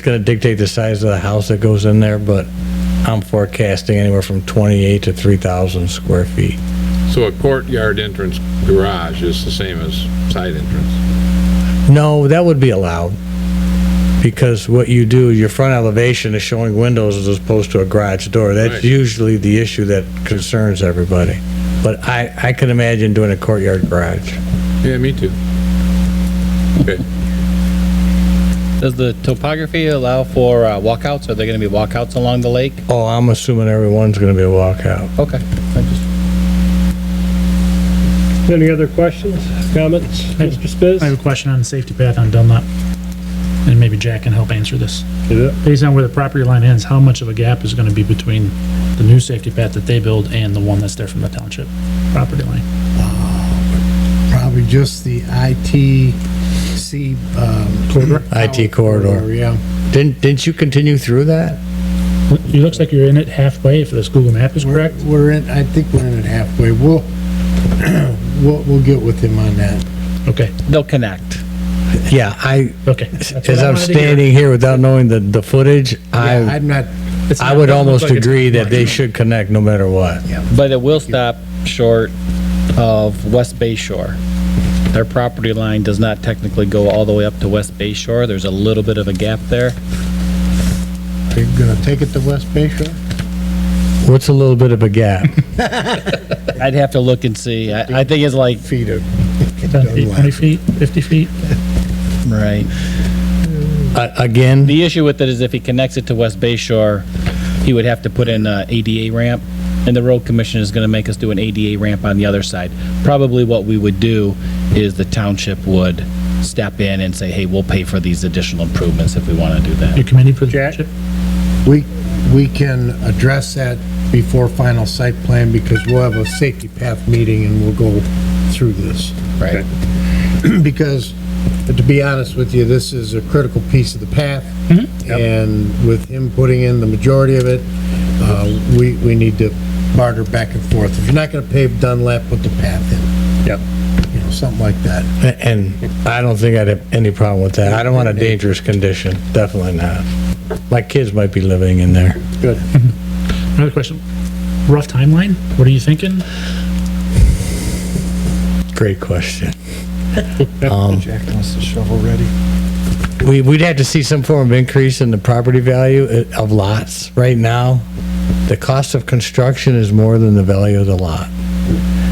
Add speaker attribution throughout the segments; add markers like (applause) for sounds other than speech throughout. Speaker 1: It's gonna dictate the size of the house that goes in there, but I'm forecasting anywhere from 28 to 3,000 square feet.
Speaker 2: So a courtyard entrance garage is the same as side entrance?
Speaker 1: No, that would be allowed. Because what you do, your front elevation is showing windows as opposed to a garage door. That's
Speaker 2: Right.
Speaker 1: usually the issue that concerns everybody. But I, I can imagine doing a courtyard garage.
Speaker 2: Yeah, me too. Okay,
Speaker 3: Does the topography allow for uh, walkouts? Are there going to be walkouts along the lake?
Speaker 1: Oh, I'm assuming everyone's gonna be a walkout.
Speaker 3: Okay. I just-
Speaker 4: Any other questions, comments? Mr. Spiz?
Speaker 5: I have a question on the safety path on Dunlop, and maybe Jack can help answer this.
Speaker 4: Yeah.
Speaker 5: Based on where the property line ends, how much of a gap is gonna be between the new safety path that they build and the one that's there from the township property line?
Speaker 6: probably just the ITC, um.
Speaker 5: Corridor?
Speaker 1: IT corridor.
Speaker 6: Yeah.
Speaker 1: Didn't, didn't you continue through that?
Speaker 5: It looks like you're in it halfway, if this Google map is
Speaker 6: We're,
Speaker 5: correct.
Speaker 6: we're in, I think we're in it halfway. We'll, (clears throat) we'll, we'll get with him on that.
Speaker 5: Okay,
Speaker 3: They'll connect.
Speaker 1: Yeah, I,
Speaker 5: okay. That's what
Speaker 1: as
Speaker 5: I
Speaker 1: I'm
Speaker 5: wanted to hear.
Speaker 1: standing here without knowing the, the footage,
Speaker 6: Yeah,
Speaker 1: I,
Speaker 6: I'm not,
Speaker 5: It's
Speaker 1: I
Speaker 5: not-
Speaker 1: would
Speaker 5: doesn't look
Speaker 1: almost
Speaker 5: like it's
Speaker 1: agree that they
Speaker 5: like-
Speaker 1: should connect no matter what.
Speaker 3: But it will stop short of West Bay Shore. Their property line does not technically go all the way up to West Bay Shore. There's a little bit of a gap there.
Speaker 6: are you gonna take it to West Bay Shore?
Speaker 1: What's a little bit of a
Speaker 5: (laughs)
Speaker 1: gap?
Speaker 3: I'd have to look and see. I, I think it's like,
Speaker 6: Feet of.
Speaker 5: 10 feet, 20 feet, 50 feet?
Speaker 3: right.
Speaker 1: A- Again?
Speaker 3: The issue with it is if he connects it to West Bay Shore, he would have to put in a ADA ramp, and the road commission is gonna make us do an ADA ramp on the other side. Probably what we would do is the township would step in and say, hey, we'll pay for these additional improvements if we wanna do
Speaker 5: Your
Speaker 3: that.
Speaker 5: committee for the
Speaker 4: Jack?
Speaker 5: township?
Speaker 6: We, we can address that before final site plan because we'll have a safety path meeting and we'll go through this.
Speaker 3: Right.
Speaker 6: (clears throat) because, to be honest with you, this is a critical piece of the path. And with him putting in the majority of it, uh, we, we need to barter back and forth. If you're not gonna pave Dunlap, put the path in.
Speaker 4: Yep.
Speaker 6: You know, something like that.
Speaker 1: And I don't think I'd have any problem with that. I don't want a dangerous condition, definitely not. My kids might be living in there.
Speaker 5: Another question, rough timeline? What are you thinking?
Speaker 1: Great question. Jack wants the shovel ready. We, we'd have to see some form of increase in the property value uh, of lots. Right now, the cost of construction is more than the value of the lot.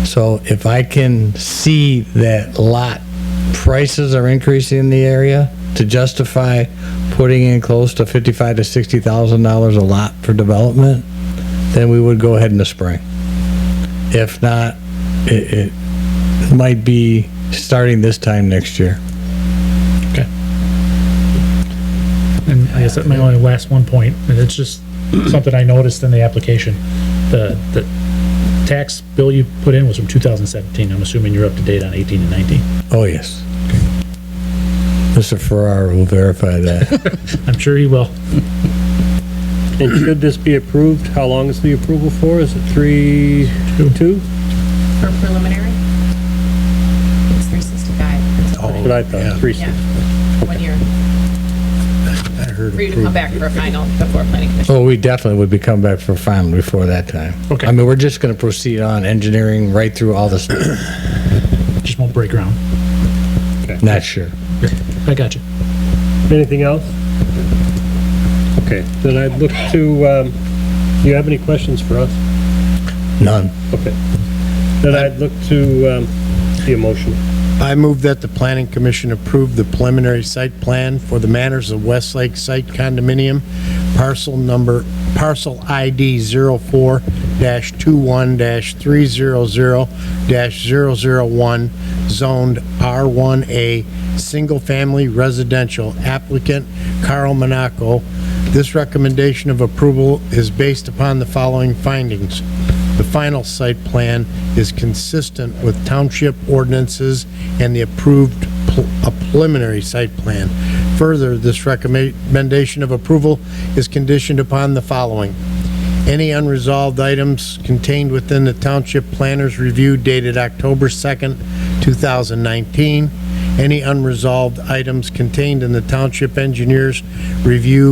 Speaker 1: So if I can see that lot prices are increasing in the area to justify putting in close to fifty-five to sixty thousand dollars a lot for development, then we would go ahead in the spring. If not, it, it, might be starting this time next year.
Speaker 5: And I guess that's my only last one point, and it's just (clears throat) something I noticed in the application. The, the tax bill you put in was from two thousand seventeen, I'm assuming you're up to date on eighteen and nineteen.
Speaker 1: Oh, yes. Mr. Ferrara will verify that.
Speaker 5: I'm sure he will.
Speaker 4: And should this be approved, how long is the approval for? Is it three, two?
Speaker 7: For preliminary? It's three sixty-five.
Speaker 4: That's what I
Speaker 6: Yeah.
Speaker 4: thought, three,
Speaker 7: Yeah,
Speaker 4: six.
Speaker 7: one year.
Speaker 6: I heard
Speaker 7: For you to come
Speaker 6: approved.
Speaker 7: back for a final before planning commission.
Speaker 1: Oh, we definitely would be coming back for final before that time.
Speaker 5: Okay.
Speaker 1: I mean, we're just gonna proceed on engineering right through all this,
Speaker 5: Just won't break ground.
Speaker 1: not sure.
Speaker 5: I got you.
Speaker 4: Anything else? Okay, then I'd look to, um, do you have any questions for us?
Speaker 1: None.
Speaker 4: Okay. Then I'd look to, um, the motion.
Speaker 6: I move that the planning commission approve the preliminary site plan for the Manners of Westlake Site Condominium, parcel number, parcel ID 04-21-300-001, zoned R1A, single-family residential applicant Carl Monaco. This recommendation of approval is based upon the following findings. The final site plan is consistent with township ordinances and the approved pl- a preliminary site plan. Further, this recommendation of approval is conditioned upon the following. Any unresolved items contained within the Township Planner's Review dated October 2nd, 2019, any unresolved items contained in the township engineer's review